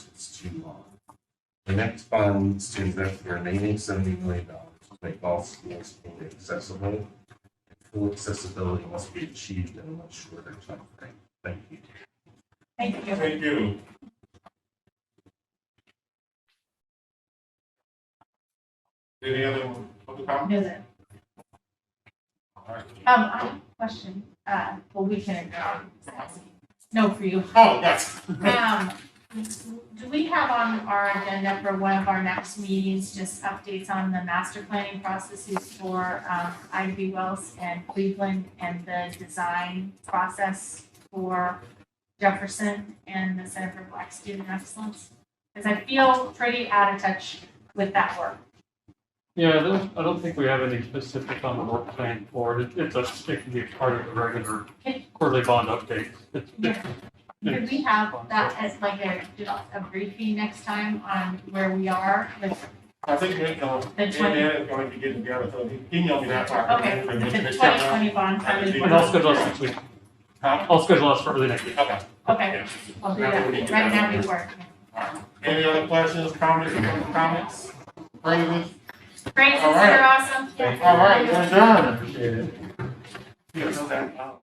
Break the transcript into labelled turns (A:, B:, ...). A: shoe law. The next fund is to invest the remaining seventy million dollars to make all schools fully accessible. and Full accessibility must be achieved in a much shorter timeframe. Thank you.
B: Thank you.
C: Thank you. Any other public comment?
B: No, that-
C: All right.
B: Um, I have a question, uh, well, we can ignore. No, for you.
C: Oh, yes.
B: Um, do we have on our agenda for one of our next meetings, just updates on the master planning processes for, um, Ivy Wells and Cleveland and the design process for Jefferson and the Center for Black Student Excellence? Because I feel pretty out of touch with that work.
D: Yeah, I don't, I don't think we have any specific on the work plan for it. It's a, it can be part of the regular quarterly bond update. It's- it's-
B: Could we have that as like a, just a briefing next time on where we are with
C: I think we know,
B: the twenty,
C: Indiana is going to get together, so he emailed me that part.
B: okay,
C: For
B: the
C: this-
B: twenty
C: this time
B: twenty bond funding.
D: And I'll schedule us next week.
C: around.
D: I'll schedule us for early next week.
C: Huh?
B: Okay,
C: Okay.
B: I'll do that, right now we work.
C: Any other questions, comments, public comments? Further?
B: Great,
C: All right.
B: you're awesome.
C: All right, you're done. Yeah, no doubt.